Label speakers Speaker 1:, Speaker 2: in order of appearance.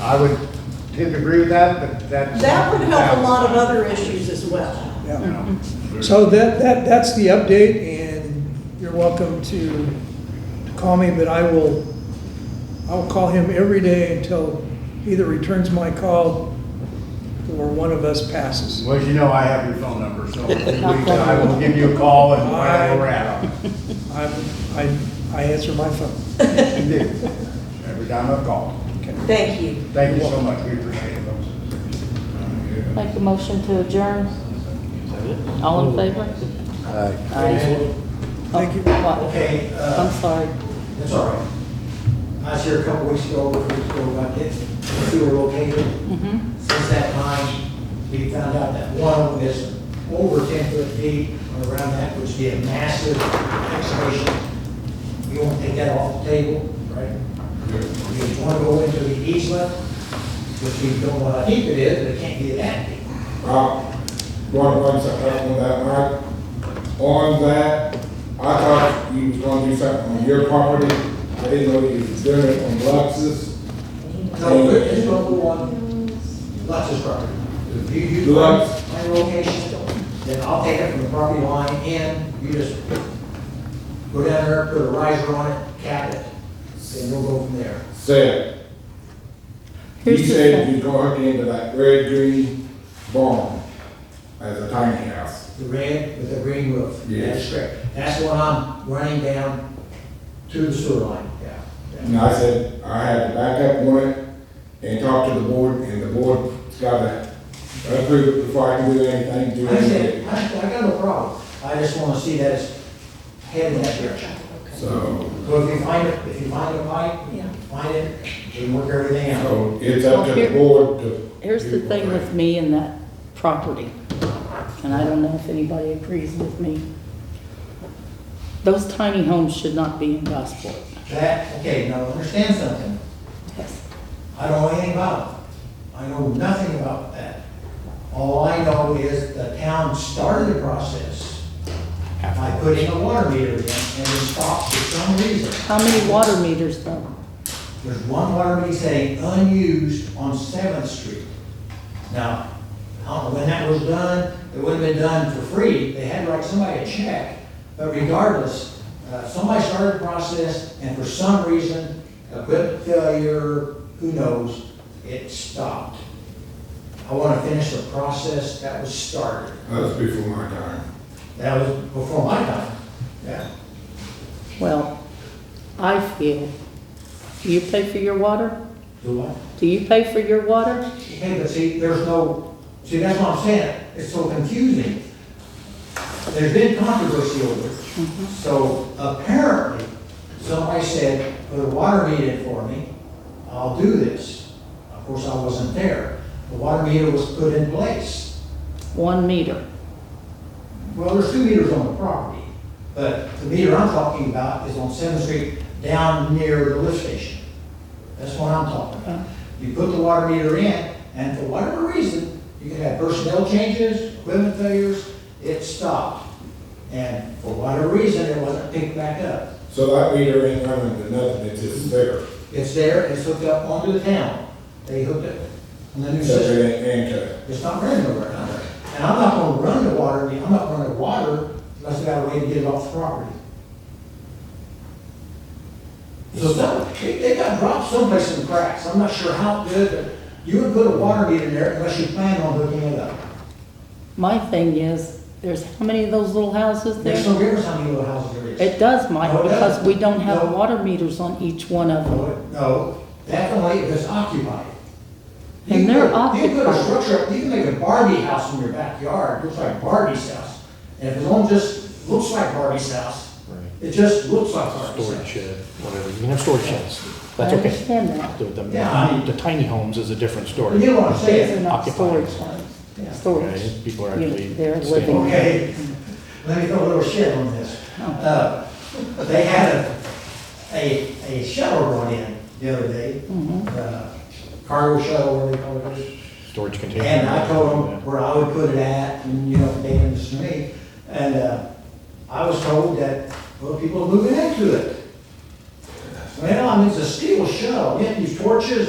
Speaker 1: I would tend to agree with that, but that's.
Speaker 2: That would help a lot of other issues as well.
Speaker 1: You
Speaker 3: Yeah.
Speaker 1: know,
Speaker 3: So that, that, that's the update, and you're welcome to to call me, but I will, I'll call him every day until he either returns my call or one of us passes.
Speaker 1: Well, as you know, I have your phone number, so if you reach out, I will give you a call and we'll have a round.
Speaker 3: I, I, I answer my phone.
Speaker 1: You do, every time I call.
Speaker 2: Thank you.
Speaker 1: Thank you so much, we appreciate it.
Speaker 4: Make a motion to adjourn. All in favor? Aye.
Speaker 3: Thank you.
Speaker 4: What?
Speaker 5: Okay,
Speaker 4: I'm
Speaker 5: uh,
Speaker 4: sorry.
Speaker 5: that's all right. I was here a couple weeks ago, a week ago about this, sewer located.
Speaker 4: Mhm.
Speaker 5: Since that time, we found out that one of them is over ten foot deep and around that, which would be a massive excavation. You want to take that off the table, right? You want to go into the easement, which we don't know how deep it is, but it can't be that deep.
Speaker 6: Uh, one, one second, on that, Mike. On that, I thought you was gonna do something on your property. I didn't know you was doing it on Luxus.
Speaker 5: No, but it's gonna go on Lux's property. If you, you
Speaker 6: Lux.
Speaker 5: my location, then I'll take it from the property line in, you just go down there, put a riser on it, cap it, and we'll go from there.
Speaker 6: Said, he
Speaker 4: Here's the
Speaker 6: said
Speaker 4: thing.
Speaker 6: you gonna hook into that red green barn as a tiny house.
Speaker 5: The red with the green roof. That's
Speaker 6: Yes.
Speaker 5: correct. That's what I'm running down to the sewer line, yeah.
Speaker 6: And I said, I had to back up on it and talk to the board, and the board's gotta approve it before I can do anything to
Speaker 5: I said,
Speaker 6: it.
Speaker 5: I, I got no problem. I just wanna see that it's heading that direction.
Speaker 6: So.
Speaker 5: So if you find it, if you find a pipe, find it, we work everything out.
Speaker 6: So it's up to the board to.
Speaker 4: Here's the thing with me and that property, and I don't know if anybody agrees with me. Those tiny homes should not be in Gosport.
Speaker 5: That, okay, now understand something. I don't know anything about it. I know nothing about that. All I know is the town started the process by putting a water meter in and it stopped for some reason.
Speaker 4: How many water meters though?
Speaker 5: There's one water meter saying unused on Seventh Street. Now, I don't know when that was done, it would have been done for free, they had to write somebody a check. But regardless, uh, somebody started the process, and for some reason, equipment failure, who knows, it stopped. I want to finish the process that was started.
Speaker 6: That's before my time.
Speaker 5: That was before my time, yeah.
Speaker 4: Well, I feel, do you pay for your water?
Speaker 5: Do what?
Speaker 4: Do you pay for your water?
Speaker 5: Okay, but see, there's no, see, that's what I'm saying, it's so confusing. There's been controversy over it. So apparently, somebody said, put a water meter in for me, I'll do this. Of course, I wasn't there. The water meter was put in place.
Speaker 4: One meter.
Speaker 5: Well, there's two meters on the property, but the meter I'm talking about is on Seventh Street down near the lift station. That's what I'm talking about. You put the water meter in, and for whatever reason, you can have personnel changes, equipment failures, it stopped. And for whatever reason, it wasn't picked back up.
Speaker 6: So that meter ain't running to nothing, it's just there.
Speaker 5: It's there, it's hooked up onto the town. They hooked it on the new
Speaker 6: So
Speaker 5: system.
Speaker 6: it ain't anchored.
Speaker 5: It's not running over and under. And I'm not gonna run the water, I mean, I'm not gonna water unless I got a way to get it off the property. So some, they, they got dropped someplace in the cracks, I'm not sure how good, but you would put a water meter there unless you plan on hooking it up.
Speaker 4: My thing is, there's how many of those little houses
Speaker 5: There's no
Speaker 4: there?
Speaker 5: difference how many little houses there is.
Speaker 4: It does, Mike,
Speaker 5: No, Oh, it
Speaker 4: because we don't have
Speaker 5: doesn't.
Speaker 4: water meters on each one of them.
Speaker 5: No, No, that's only if it's occupied. You
Speaker 4: And
Speaker 5: can
Speaker 4: they're
Speaker 5: put- You can put a
Speaker 4: occupied.
Speaker 5: structure, up- you can make a Barbie house in your backyard, looks like Barbie's house. And if it only just looks like Barbie's house, it just looks like Barbie's
Speaker 7: storage
Speaker 5: house.
Speaker 7: shed, whatever, you can have storage sheds,
Speaker 4: I
Speaker 7: that's okay.
Speaker 4: understand that.
Speaker 7: The- the-
Speaker 5: Yeah, I mean-
Speaker 7: The tiny homes is a different
Speaker 5: You
Speaker 7: story.
Speaker 5: know what I'm
Speaker 4: These are
Speaker 5: saying?
Speaker 4: not
Speaker 7: Occupied.
Speaker 4: storage homes,
Speaker 5: Yeah.
Speaker 4: storage.
Speaker 7: Okay, People are
Speaker 4: You-
Speaker 7: actually.
Speaker 4: they're
Speaker 7: staying.
Speaker 4: living.
Speaker 5: Okay, let me throw a little shit on this. Uh, They had a, a, a shuttle brought in the other day, uh, cargo shuttle, what do they call it?
Speaker 7: Storage container.
Speaker 5: And I told them where I would put it at, and, you know, they didn't listen to me. And, uh, I was told that, well, people are moving into it. Well, I mean, it's a steel shell, you have to use torches and